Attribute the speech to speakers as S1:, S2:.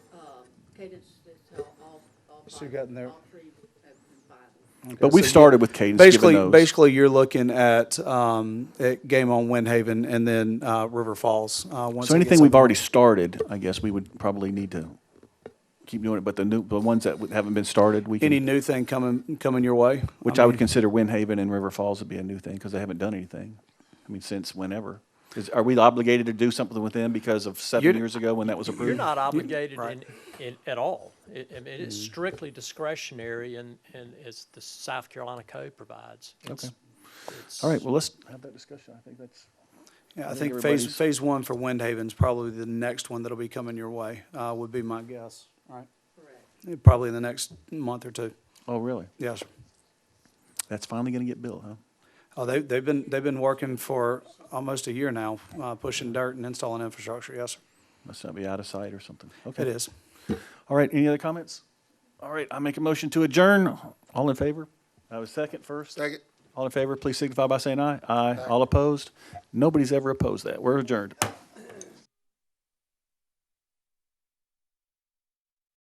S1: um, Cadence, that's all, all, all.
S2: So you
S1: Bible,
S2: got in there-
S1: All three of the Bible.
S3: But we've
S2: So you-
S3: started with cadence, given
S2: Basically,
S3: those.
S2: basically, you're looking at, um, at game on Windhaven and then, uh, River Falls, uh, once.
S3: So
S2: it
S3: anything
S2: gets
S3: we've
S2: up.
S3: already started, I guess we would probably need to keep doing it, but the new, the ones that haven't been started, we
S2: Any
S3: can,
S2: new thing coming, coming your way? Um,
S3: which I would consider Windhaven and River Falls would be a new thing, because they haven't done anything, I mean, since whenever. Is, are we obligated to do something with them because of seven
S2: You're-
S3: years ago when that was approved?
S4: You're not obligated in,
S2: right.
S4: in, at all. It, I mean, it's
S3: Mm.
S4: strictly discretionary and, and it's the South Carolina code provides.
S3: Okay.
S4: It's-
S3: All right, well, let's have that discussion, I think that's.
S2: Yeah, I
S3: I think
S2: think phase,
S3: everybody's-
S2: phase one for Windhaven's probably the next one that'll be coming your way, uh, would be my guess, right? Eh,
S1: Correct.
S2: Probably in the next month or two,
S3: Oh, really?
S2: yes.
S3: That's finally gonna get built, huh?
S2: Oh, they, they've been, they've been working for almost a year now, uh, pushing dirt and installing infrastructure, yes,
S3: Must not be out of sight or something. Okay.
S2: it is.
S3: All right, any other comments? All right, I make a motion to adjourn. All in favor? I was second first.
S5: Second.
S3: All in favor, please signify by saying aye. Aye. All opposed? Nobody's ever opposed that. We're adjourned.